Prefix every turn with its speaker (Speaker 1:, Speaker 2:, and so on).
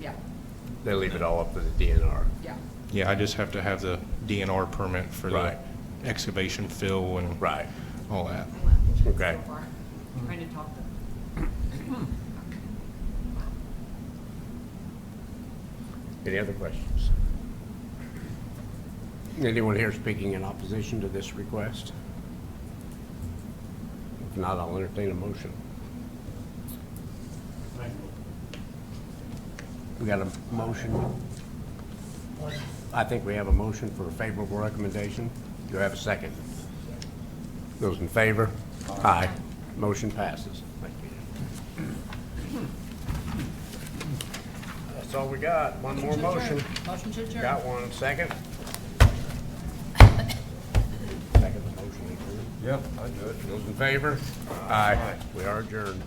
Speaker 1: yeah,
Speaker 2: They leave it all up to the DNR.
Speaker 1: yeah.
Speaker 3: Yeah, I just have to have the DNR permit for
Speaker 2: Right.
Speaker 3: the excavation fill and
Speaker 2: Right.
Speaker 3: all that.
Speaker 2: Okay.
Speaker 1: So far, Trying to talk them.
Speaker 2: Any other questions? Anyone here speaking in opposition to this request? If not, I'll entertain a motion. We got a motion. I think we have a motion for a favorable recommendation. Do I have a second? Those in favor? Aye. Motion passes. Thank you. That's all we got. One more motion.
Speaker 1: Motion to adjourn.
Speaker 2: Got one second. Second the motion. Yep, I do it. Those in favor? Aye. We are adjourned.